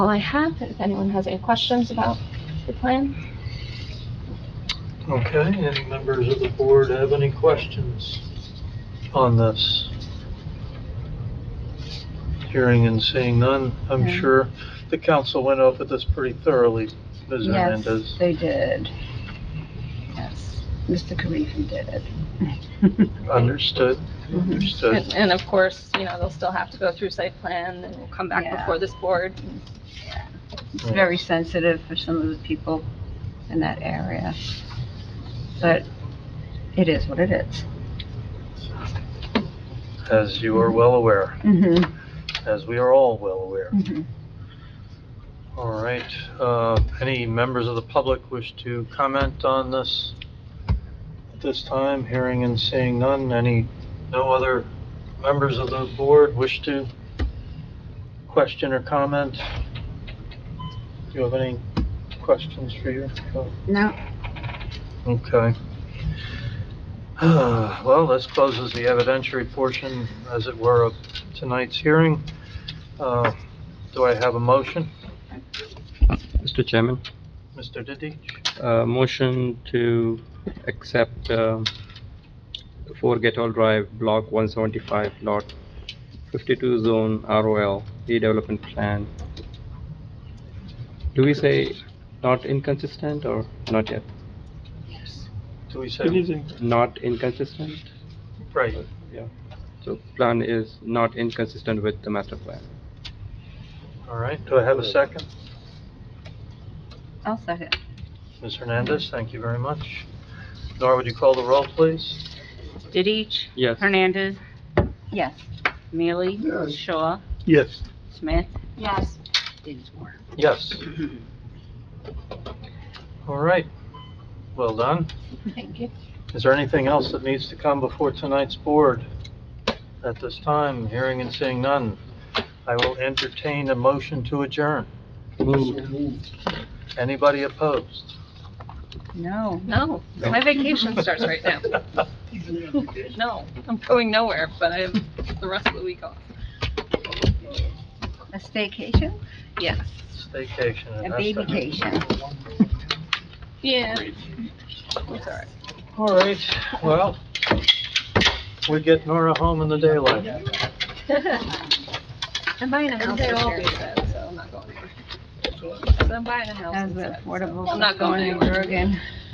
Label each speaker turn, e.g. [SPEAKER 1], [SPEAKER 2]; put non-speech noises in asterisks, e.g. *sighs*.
[SPEAKER 1] I have, if anyone has any questions about the plan.
[SPEAKER 2] Okay, any members of the board have any questions on this? Hearing and seeing none, I'm
[SPEAKER 3] No.
[SPEAKER 2] sure the council went over this pretty thoroughly, Ms.
[SPEAKER 3] Yes,
[SPEAKER 2] Hernandez.
[SPEAKER 3] They did. Yes, Mr. Karifi did it.
[SPEAKER 2] *laughs* Understood,
[SPEAKER 3] Mhm.
[SPEAKER 1] And
[SPEAKER 2] understood.
[SPEAKER 1] and of course, you know, they'll still have to go through site plan and we'll come back
[SPEAKER 3] Yeah.
[SPEAKER 1] before this board.
[SPEAKER 3] It's very sensitive for some of the people in that area. But it is what it is.
[SPEAKER 2] As you are well aware,
[SPEAKER 3] Mhm,
[SPEAKER 2] as we are all well aware.
[SPEAKER 3] mhm.
[SPEAKER 2] All right, uh, any members of the public wish to comment on this? At this time, hearing and seeing none, any, no other members of the board wish to question or comment? Do you have any questions for you?
[SPEAKER 3] No,
[SPEAKER 2] Okay. *sighs* Well, this closes the evidentiary portion, as it were, of tonight's hearing. Uh, Do I have a motion?
[SPEAKER 4] Mr. Chairman,
[SPEAKER 2] Mr. Diddy?
[SPEAKER 4] uh, motion to accept um, 4 Get All Drive, Block 175, Lot 52, Zone ROL, redevelopment plan. Do we say not inconsistent or not yet?
[SPEAKER 2] Do we say?
[SPEAKER 4] Not inconsistent?
[SPEAKER 2] Right.
[SPEAKER 4] Yeah. So plan is not inconsistent with the master plan.
[SPEAKER 2] All right, do I have a second?
[SPEAKER 3] I'll second.
[SPEAKER 2] Ms. Hernandez, thank you very much. Nora, would you call the roll, please?
[SPEAKER 5] Didich,
[SPEAKER 4] Yes.
[SPEAKER 5] Hernandez,
[SPEAKER 3] Yes.
[SPEAKER 5] Mealy, Shaw,
[SPEAKER 2] Yes.
[SPEAKER 5] Smith,
[SPEAKER 1] Yes.
[SPEAKER 5] Dinsmore.
[SPEAKER 2] Yes. All right, well done.
[SPEAKER 1] Thank you.
[SPEAKER 2] Is there anything else that needs to come before tonight's board? At this time, hearing and seeing none, I will entertain a motion to adjourn. Anybody opposed?
[SPEAKER 3] No.
[SPEAKER 1] No, my vacation starts right now. No, I'm going nowhere, but I have the rest of the week off.
[SPEAKER 3] A staycation?
[SPEAKER 1] Yes.
[SPEAKER 2] *laughs* Staycation.
[SPEAKER 3] A
[SPEAKER 2] and that's-
[SPEAKER 3] babycation.
[SPEAKER 1] Yeah. It's all right.
[SPEAKER 2] All right, well, we get Nora home in the daylight.
[SPEAKER 1] I'm buying a house
[SPEAKER 3] they
[SPEAKER 1] this
[SPEAKER 3] all
[SPEAKER 1] year,
[SPEAKER 3] do
[SPEAKER 1] so I'm not going anywhere. So I'm buying a house
[SPEAKER 3] As
[SPEAKER 1] instead, so
[SPEAKER 3] affordable.
[SPEAKER 1] I'm not going
[SPEAKER 3] in
[SPEAKER 1] anywhere.
[SPEAKER 3] Bergen.